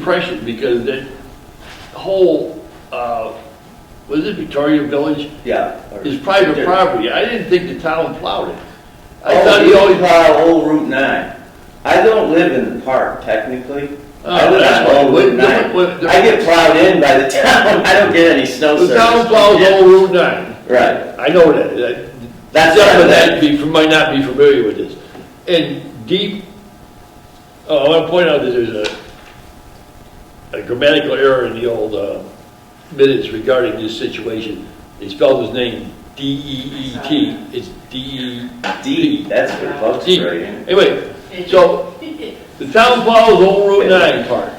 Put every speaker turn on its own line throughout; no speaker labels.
impression because the whole, uh, was it Victoria Village?
Yeah.
Is private
Yeah.
property. I didn't think the town plowed it. I thought
Oh,
he
you
always,
own uh, old Route 9. I don't live in the park technically. I
Oh,
live
that's
on
why.
old Route
What- what-
9. I get plowed in by the town. I don't get any snow service.
the town plows all Route 9.
Right.
I know that. that.
That's
Some
what I
of that
meant.
be, might not be familiar with this. And deep, oh, I want to point out that there's a, a grammatical error in the old uh, minutes regarding this situation. They spelled his name D-E-E-T. It's E D-E.
D, that's what folks
Deep.
are in.
E Anyway, so the town plows old Route 9 part,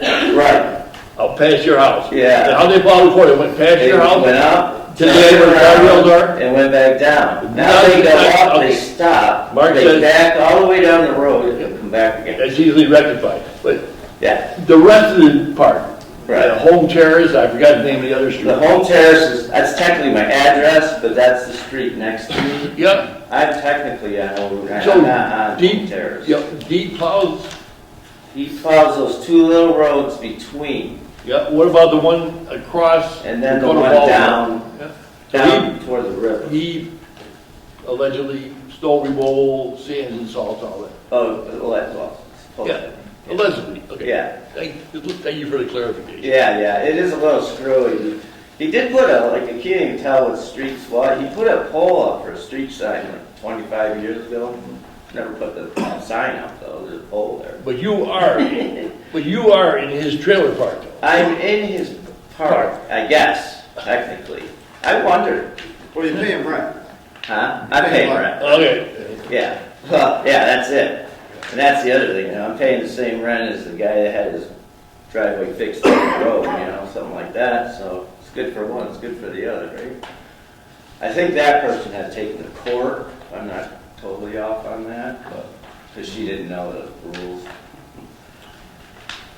Right.
out past your house.
Yeah.
Now, how they plow the court, it went past
They
your house?
went up.
To the end where the
turned around,
guardrails are?
And went back down.
Now
Now
they
they go
back-
up,
okay.
they stop.
Mark
They
says-
back all the way down the road and come back again.
That's easily rectified. But
Yeah.
The rest of the part,
Right.
the home terrace, I forgot the name of the other
The
street.
home terrace is, that's technically my address, but that's the street next to me.
Yep,
I'm technically on Old Route,
So,
I'm not on
deep-
Old Terrace.
yep, deep plows,
He plows those two little roads between,
yep, what about the one across?
and then the
Dakota
one
Boulevard?
down,
Yeah.
down toward the river.
He allegedly stole removal, sands and salt, all that.
Oh, well, that's all.
Yeah. Allegedly, okay.
Yeah.
Thank, thank you for the clarification.
Yeah, yeah, it is a little screwy. He did put a, like, you can't even tell what streets what, he put a pole up for a street sign like twenty-five years ago. Never put the uh, sign up though, there's a pole there.
But you are, but you are in his trailer park though.
I'm in his park, I guess, technically. I wondered,
Well, you pay him rent.
huh? I pay rent.
Okay,
Yeah, well, yeah, that's it. And that's the other thing, you know, I'm paying the same rent as the guy that had his driveway fixed on the road, you know, something like that, so it's good for one, it's good for the other, right? I think that person had taken the court, I'm not totally off on that, because she didn't know the rules.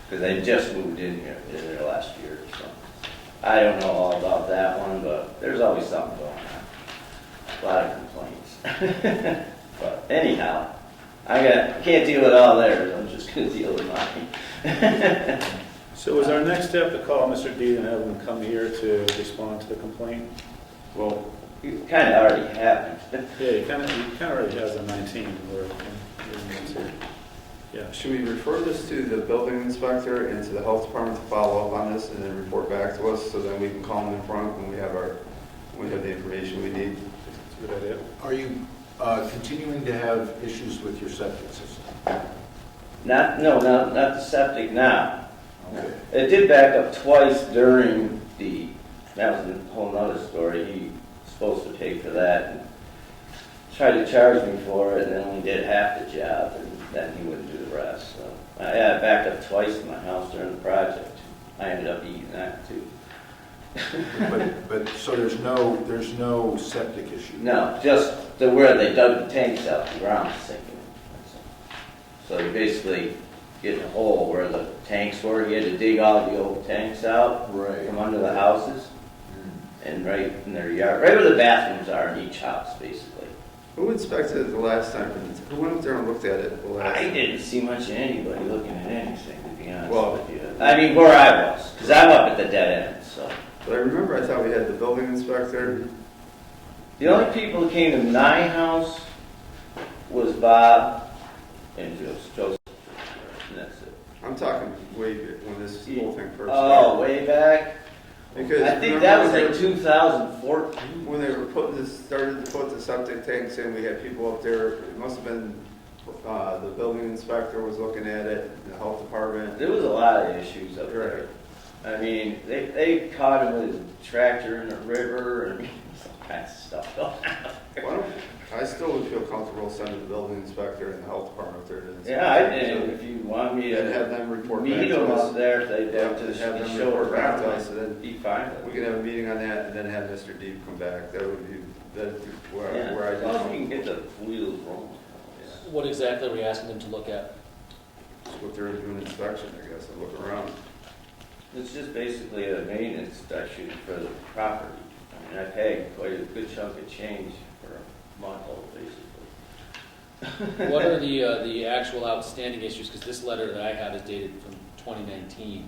Because they just moved in here, in there last year, so. I don't know all about that one, but there's always something going on. A lot of complaints. But anyhow, I got, can't deal with all theirs, I'm just gonna deal with mine.
So is our next step to call Mr. Dean and have him come here to respond to the complaint?
Well. It kinda already happened.
Yeah, he kind of, he kind of already has a 19 where, yeah.
Should we refer this to the building inspector and to the health department to follow up on this and then report back to us so then we can call them in front when we have our, when we have the information we need?
That's a good idea.
Are you uh, continuing to have issues with your septic system?
Not, no, not, not the septic now.
Okay.
It did back up twice during the, that was a whole nother story, he was supposed to pay for that. and Tried to charge me for it, and then only did half the job, and then he wouldn't do the rest, so. I I backed up twice in my house during the project, I ended up eating that too.
But, but, so there's no, there's no septic issue?
No, just the where they dug the tanks out, the ground was sinking. So you basically get a hole where the tanks were, you had to dig all the old tanks out
Right.
from under the houses and right in their yard, right where the bathrooms are in each house, basically.
Who inspected it the last time? Who went up there and looked at it the last?
I
time?
didn't see much of anybody looking at anything, to be
Well-
honest with you. I mean, where I was, because I'm up at the dead end, so.
But I remember I thought we had the building inspector.
The only people that came to my house was Bob and Joseph, and that's it.
I'm talking way back when this whole thing first
Oh,
started.
way back?
Because
I think
remember
that was
when they
like
were-
2014.
When they were putting this, started to put the septic tanks in, we had people up there, it must have been, uh, the building inspector was looking at it, the health department.
There was a lot of issues up there. I mean, they, they caught him with a tractor in the river and all kinds of stuff. going on.
Why don't, I still would feel comfortable sending the building inspector and the health department up there to inspect.
Yeah, I did, if you want me
And have
to
them report back
meet
to
them up
us.
there, if they
Yeah,
don't,
to
just
have them
show
report back to
around,
us, and
I'd
then
be fine with
We
it.
could have a meeting on that and then have Mr. Deep come back. That would be, that's where,
Yeah,
where I
as long as we can
just,
get the wheels rolling.
What exactly are we asking them to look at?
just what they're doing inspection, I guess, and look around.
It's just basically a maintenance section for the property. I mean, I pay quite a good chunk of change for a month-old, basically.
What are the, uh, the actual outstanding issues? Because this letter that I have is dated from 2019.